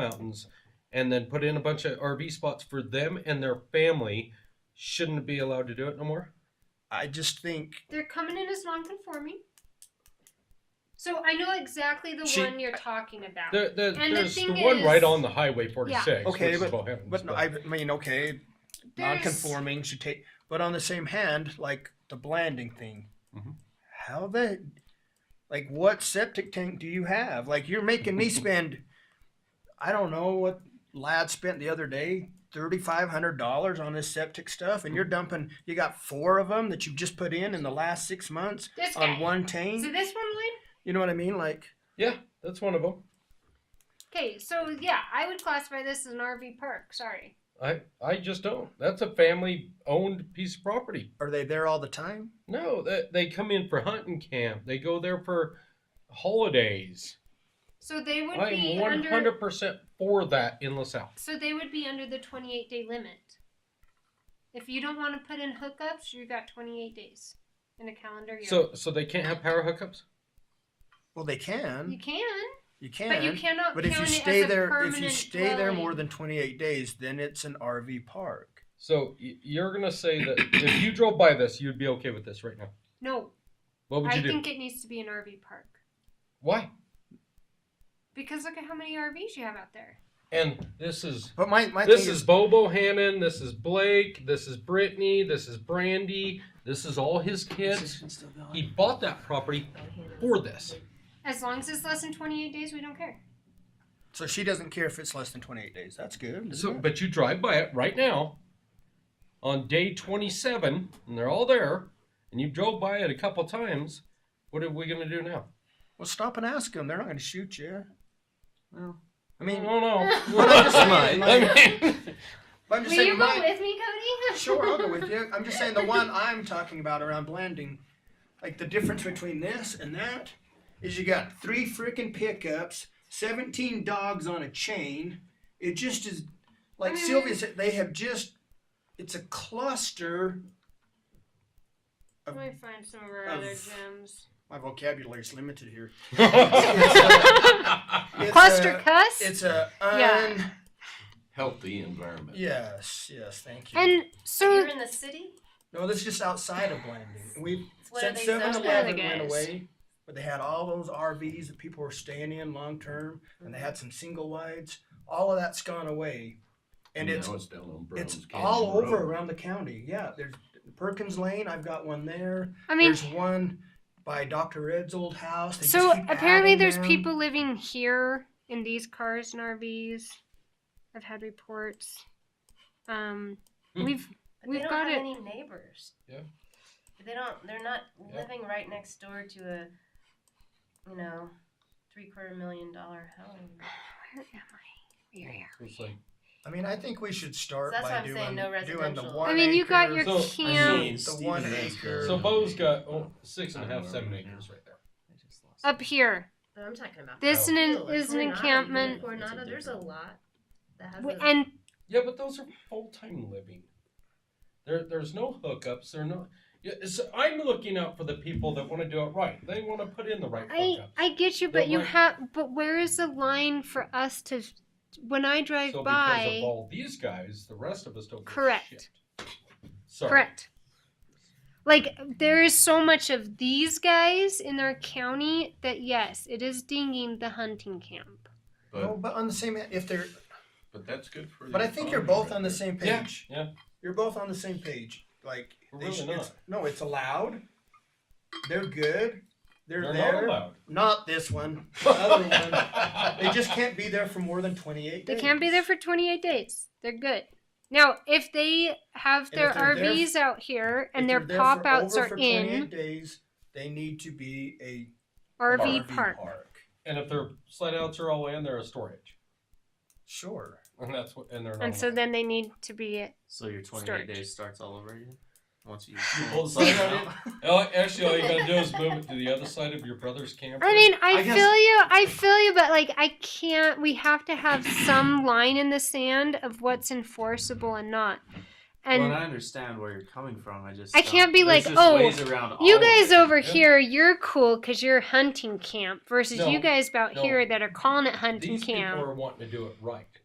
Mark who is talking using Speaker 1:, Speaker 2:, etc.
Speaker 1: mountains and then put in a bunch of RV spots for them and their family, shouldn't it be allowed to do it no more?
Speaker 2: I just think
Speaker 3: They're coming in as non-conforming. So I know exactly the
Speaker 2: She-
Speaker 3: one you're talking about.
Speaker 1: There, there,
Speaker 3: And the
Speaker 1: there's the,
Speaker 3: thing
Speaker 1: one right
Speaker 3: is-
Speaker 1: on the Highway 46.
Speaker 2: Okay,
Speaker 1: which is about heavens,
Speaker 2: But no, I mean, okay,
Speaker 3: There's-
Speaker 2: non-conforming should take. But on the same hand, like the blanding thing,
Speaker 1: Mhm.
Speaker 2: how the, like, what septic tank do you have? Like, you're making me spend, I don't know what lad spent the other day, thirty five hundred dollars on this septic stuff, and you're dumping. You got four of them that you've just put in in the last six months
Speaker 3: This guy.
Speaker 2: on one
Speaker 3: So
Speaker 2: tank.
Speaker 3: this one, Lloyd?
Speaker 2: You know what I mean? Like,
Speaker 1: yeah, that's one of them.
Speaker 3: Okay, so yeah, I would classify this as an RV park. Sorry.
Speaker 1: I, I just don't. That's a family owned piece of property.
Speaker 2: are they there all the time?
Speaker 1: No, they, they come in for hunting camp, they go there for holidays.
Speaker 3: So they would
Speaker 1: I'm
Speaker 3: be
Speaker 1: 100%
Speaker 3: under.
Speaker 1: for that in LaSalle.
Speaker 3: So they would be under the 28 day limit. If you don't want to put in hookups, you got 28 days in a calendar year.
Speaker 1: So, so they can't have power hookups?
Speaker 2: Well, they can.
Speaker 3: you can,
Speaker 2: You can.
Speaker 3: but you cannot.
Speaker 2: But if you
Speaker 3: count it
Speaker 2: stay
Speaker 3: as a
Speaker 2: there, if you
Speaker 3: permanent
Speaker 2: stay there more
Speaker 3: dwelling.
Speaker 2: than 28 days, then it's an RV park.
Speaker 1: So y- you're gonna say that if you drove by this, you'd be okay with this right now.
Speaker 3: No,
Speaker 1: What would you
Speaker 3: I
Speaker 1: do?
Speaker 3: think it needs to be an RV park
Speaker 1: Why?
Speaker 3: because look at how many RVs you have out there.
Speaker 1: And this is
Speaker 2: But my, my
Speaker 1: this
Speaker 2: thing
Speaker 1: is Bobo Hammond. This is Blake. This is Brittany. This is Brandy. This is all his kids. He bought that property for this.
Speaker 3: As long as it's less than 28 days, we don't care.
Speaker 2: so she doesn't care if it's less than 28 days. That's good.
Speaker 1: So,
Speaker 2: So,
Speaker 1: but you drive by it right now, on day 27, and they're all there, and you drove by it a couple times. What are we gonna do now?
Speaker 2: well, stop and ask them. They're not going to shoot you.
Speaker 1: Well,
Speaker 2: I mean,
Speaker 1: no, no.
Speaker 2: Well, I just might.
Speaker 1: I mean,
Speaker 2: but I'm just
Speaker 3: Will
Speaker 2: saying,
Speaker 3: you go
Speaker 2: my-
Speaker 3: with me, Cody?
Speaker 2: sure, I'll go with you. I'm just saying the one I'm talking about around Blanding, like the difference between this and that is you got three freaking pickups, 17 dogs on a chain. It just is
Speaker 3: Mm.
Speaker 2: like Sylvia said, they have just, it's a cluster.
Speaker 3: Let me find some of our
Speaker 2: Of-
Speaker 3: other gems.
Speaker 2: My vocabulary is limited here. It's
Speaker 3: Cluster
Speaker 2: a-
Speaker 3: cuss.
Speaker 2: It's a un-
Speaker 3: Yeah.
Speaker 4: healthy environment.
Speaker 2: Yes, yes, thank you.
Speaker 3: And so
Speaker 5: You're in the city?
Speaker 2: no, this is just outside of Blanding. We
Speaker 5: It's one of
Speaker 2: since
Speaker 5: these
Speaker 2: Seven
Speaker 5: zones.
Speaker 2: Eleven
Speaker 3: Yeah, I
Speaker 2: went
Speaker 3: guess.
Speaker 2: away, but they had all those RVs that people were staying in long term, and they had some single wides. All of that's gone away, and it's
Speaker 4: now it's down on Brown's
Speaker 2: it's
Speaker 4: Canyon
Speaker 2: all over
Speaker 4: Road.
Speaker 2: around the county. Yeah, there's Perkins Lane. I've got one there.
Speaker 3: I mean,
Speaker 2: there's one by Dr. Ed's old house. They
Speaker 3: so
Speaker 2: just keep
Speaker 3: apparently
Speaker 2: adding
Speaker 3: there's
Speaker 2: them.
Speaker 3: people living here in these cars and RVs. I've had reports. Um,
Speaker 1: Hmm.
Speaker 3: we've
Speaker 5: But
Speaker 3: we've
Speaker 5: they don't
Speaker 3: got
Speaker 5: have
Speaker 3: it.
Speaker 5: any neighbors.
Speaker 1: Yeah.
Speaker 5: They don't. They're not
Speaker 1: Yeah.
Speaker 5: living right next door to a, you know, three quarter million dollar home.
Speaker 3: Where am I? Where am
Speaker 1: It's like-
Speaker 2: I mean, I think we should start
Speaker 5: That's
Speaker 2: by
Speaker 5: what I'm
Speaker 2: doing,
Speaker 5: saying, no
Speaker 2: doing the
Speaker 5: residential.
Speaker 3: I?
Speaker 2: one.
Speaker 3: I mean, you got
Speaker 2: acre-
Speaker 3: your
Speaker 1: So- I
Speaker 3: camp
Speaker 1: mean-
Speaker 2: the one acre.
Speaker 1: So Bo's got oh, six and a half, seven acres right there.
Speaker 3: up here.
Speaker 5: But I'm talking about.
Speaker 3: This
Speaker 1: Oh.
Speaker 3: an,
Speaker 5: Hill, like
Speaker 3: is an
Speaker 5: Coronado,
Speaker 3: encampment,
Speaker 5: Coronado, there's a lot that has.
Speaker 3: w-
Speaker 5: a-
Speaker 3: and
Speaker 1: Yeah, but those are full time living. There, there's no hookups. They're not. Yeah, so I'm looking out for the people that want to do it right. They want to put in the right
Speaker 3: I
Speaker 1: hookups.
Speaker 3: I get you, but
Speaker 1: Don't
Speaker 3: you
Speaker 1: worry.
Speaker 3: have. But where is the line for us to? When I drive
Speaker 1: so because
Speaker 3: by,
Speaker 1: of all these guys, the rest of us don't. give a
Speaker 3: Correct.
Speaker 1: shit. Sorry.
Speaker 3: Correct. Like there is so much of these guys in our county that yes, it is dinging the hunting camp.
Speaker 2: No,
Speaker 4: But,
Speaker 2: but on the same, if they're,
Speaker 4: but that's good for. the
Speaker 2: but I think you're
Speaker 4: economy
Speaker 2: both
Speaker 4: right
Speaker 2: on the
Speaker 4: there.
Speaker 2: same
Speaker 1: Yeah,
Speaker 2: page.
Speaker 1: yeah.
Speaker 2: You're both on the same page. Like
Speaker 1: We're
Speaker 2: they
Speaker 1: really
Speaker 2: should-
Speaker 1: not.
Speaker 2: It's, no, it's allowed. They're good. They're,
Speaker 1: They're
Speaker 2: there.
Speaker 1: not allowed.
Speaker 2: Not this one. The other one. They just can't be there for more than 28
Speaker 3: They
Speaker 2: days.
Speaker 3: can't be there for 28 days. They're good. Now, if they
Speaker 2: And
Speaker 3: have
Speaker 2: if
Speaker 3: their
Speaker 2: they're there-
Speaker 3: RVs out here
Speaker 2: If
Speaker 3: and their
Speaker 2: they're there
Speaker 3: pop
Speaker 2: for
Speaker 3: outs
Speaker 2: over
Speaker 3: are
Speaker 2: for
Speaker 3: in
Speaker 2: 28 days, they need to be a
Speaker 3: RV park.
Speaker 1: And if their slide outs are all in, they're a storage,
Speaker 2: Sure.
Speaker 1: and that's what. And they're not.
Speaker 3: And so then they need to be it.
Speaker 6: So your 28
Speaker 3: Storage.
Speaker 6: days starts all over again? Once you
Speaker 1: pull the sign out. Oh, actually, all you gotta do is move it to the other side of your brother's camper.
Speaker 3: I mean, I,
Speaker 6: I guess-
Speaker 3: feel you. I feel you, but like I can't we have to have some line in the sand of what's enforceable and not. and
Speaker 6: well, and I understand where you're coming from. I just
Speaker 3: I can't be
Speaker 6: there's
Speaker 3: like,
Speaker 6: just
Speaker 3: "Oh,
Speaker 6: ways around all
Speaker 3: you
Speaker 6: of it."
Speaker 3: guys over
Speaker 1: Yeah.
Speaker 3: here, you're cool because you're hunting camp versus
Speaker 1: No,
Speaker 3: you guys out
Speaker 1: no.
Speaker 3: here that are calling it hunting
Speaker 1: These
Speaker 3: camp.
Speaker 1: people are wanting to do it right.